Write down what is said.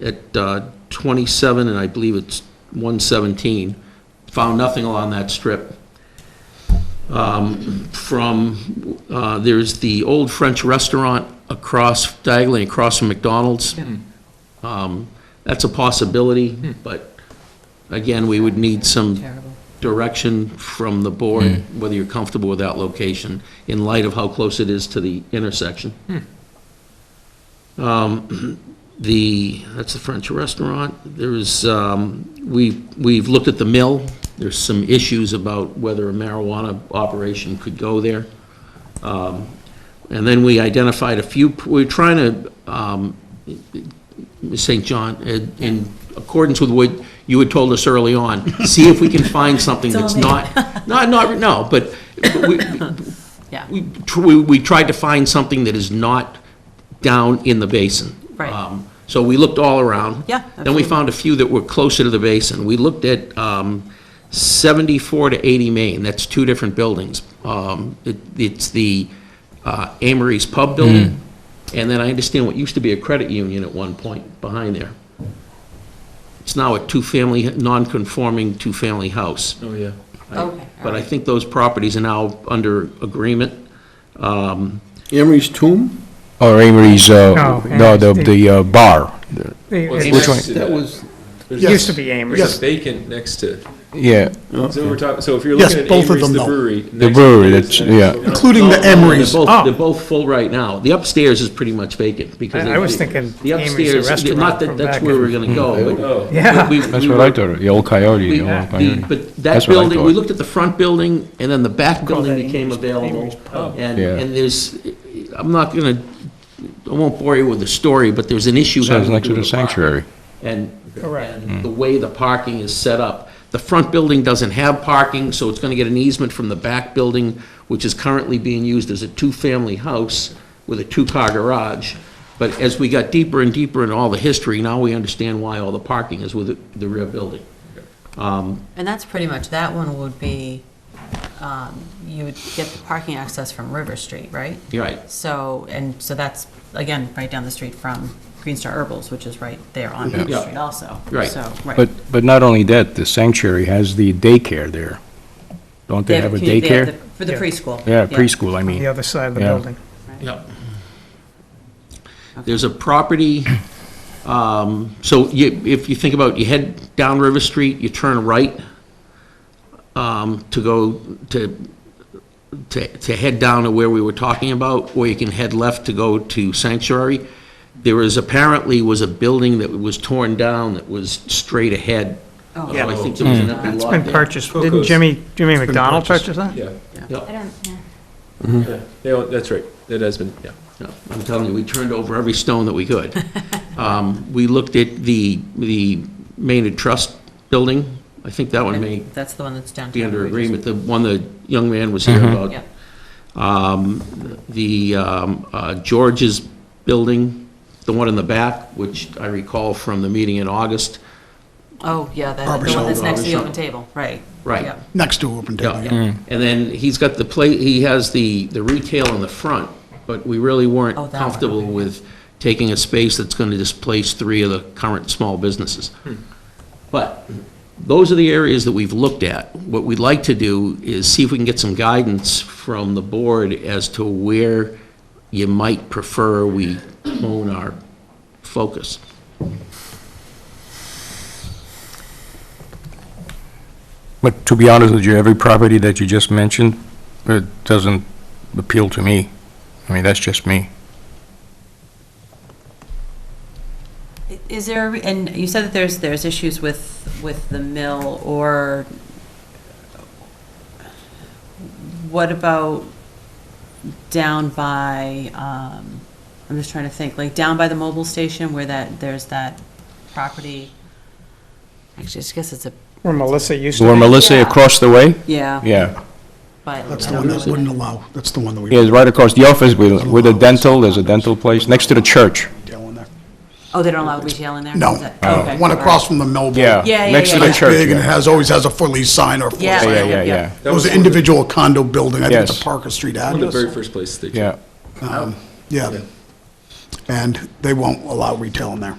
at uh, 27, and I believe it's 117, found nothing along that strip. Um, From, uh, there's the old French restaurant across, diagonally across from McDonald's. Um, That's a possibility, but again, we would need some Terrible. direction from the board, whether you're comfortable with that location, in light of how close it is to the intersection. Um, The, that's the French restaurant, there is, um, we, we've looked at the mill, there's some issues about whether a marijuana operation could go there. Um, And then we identified a few, we're trying to, um, Ms. St. John, in- in accordance with what you had told us early on, see if we can find something It's all that's me. not, not, not, no, but we, Yeah. we tr- we, we tried to find something that is not down in the basin. Right. Um, So we looked all around. Yeah, Then we absolutely. found a few that were closer to the basin. We looked at um, 74 to 80 Main, that's two different buildings. Um, it- It's the uh, Amory's Pub building, and then I understand what used to be a credit union at one point behind there. It's now a two-family, non-conforming two-family house. Oh, yeah. Okay. But I think those properties are now under agreement. Um, Emery's Tomb? Or Amory's, uh, No, no, the, Amory's the uh, bar, They- Well, it's it's- next one? to That was, There's It a- used to be Amory's. There's a vacant next to, yeah, so we're talking, so if you're Yes, looking at both of Amory's, them, the though. brewery. The brewery, that's- yeah. including the No, no, Emery's. They're Oh. both, they're both full right now. The upstairs is pretty much vacant because. I- I they- was thinking the Amy's, the upstairs- restaurant Not that from that's back where in- we're gonna go, but. Oh, Yeah. we- we- Hmm. that's we what I were- thought, the old coyote, we- the old the- coyote. But that That's what I building, thought. we looked at the front building and then the back Call building that became Amy's- available. Amy's Pub. And, Yeah. and there's, I'm not gonna, I won't bore you with the story, but there's an issue. So having it's to do next to the with parking. sanctuary. and, Correct. and the way the parking is set up. The front building doesn't have parking, so it's gonna get an easement from the back building, which is currently being used as a two-family house with a two-car garage. But as we got deeper and deeper into all the history, now we understand why all the parking is with the- the rear building. And that's pretty much, that one would be, um, you would get the parking access from River Street, right? You're right. So, and so that's, again, right down the street from Green Star Herbals, which is right there on River Yeah. Street also. Right. So, right. But, but not only that, the sanctuary has the daycare there. Don't they have a commu- they have daycare? the- For the Yeah. preschool. Yeah, preschool, I mean. The other side of the Yeah. building. Yep. There's a property, um, so you, if you think about, you head down River Street, you turn right, um, to go, to, to, to head down to where we were talking about, or you can head left to go to Sanctuary. There is apparently was a building that was torn down that was straight ahead. Oh. Uh, I think there was an empty It's lot Hmm. been there. purchased. Didn't Coco's. Jimmy, Jimmy McDonald purchase that? yeah, Yep. I don't, yeah. yeah, They all- that's right, that has been, yeah. No, I'm telling you, we turned over every stone that we could. Um, We looked at the, the Maynard Trust building. I think that one may That's the one that's downtown. be under We just- agreement, the one the young man was here about. Yeah. Um, The um, uh, George's building, the one in the back, which I recall from the meeting in August. Oh, yeah, that, Barber the one shop. that's next to the Barber open table, right. Right. Yeah. next to Open Table. yeah. And then he's got the play, he has the, the retail in the front, but we really weren't Oh, that one, comfortable okay. with taking a space that's going to displace three of the current small businesses. But those are the areas that we've looked at. What we'd like to do is see if we can get some guidance from the board as to where you might prefer we hone our focus. But to be honest with you, every property that you just mentioned, it doesn't appeal to me. I mean, that's just me. Is there, and you said that there's, there's issues with, with the mill, or what about down by, um, I'm just trying to think, like down by the mobile station where that, there's that property? Actually, I just guess it's a, Where Melissa used to Where be. Melissa across the way? yeah, Yeah, but. That's I don't the one know that what wouldn't it- allow, that's the one that we yeah, it's right across the office with, with a dental, there's a dental place, next to the church. retail in there. Oh, they don't allow retail in there? No, Is that- okay, The one all right. across from the Melbourne. Oh. Yeah, Yeah, yeah, next to yeah, the yeah. Nice church. big, and it has, always has a for lease sign or for Yeah, Yeah, sale. yeah, yeah, yeah. That Those was are one of the- individual condo building, I think it's Yes. a Parker Street One of the very address. first places they. Yeah. Yeah, and they won't allow retail in there.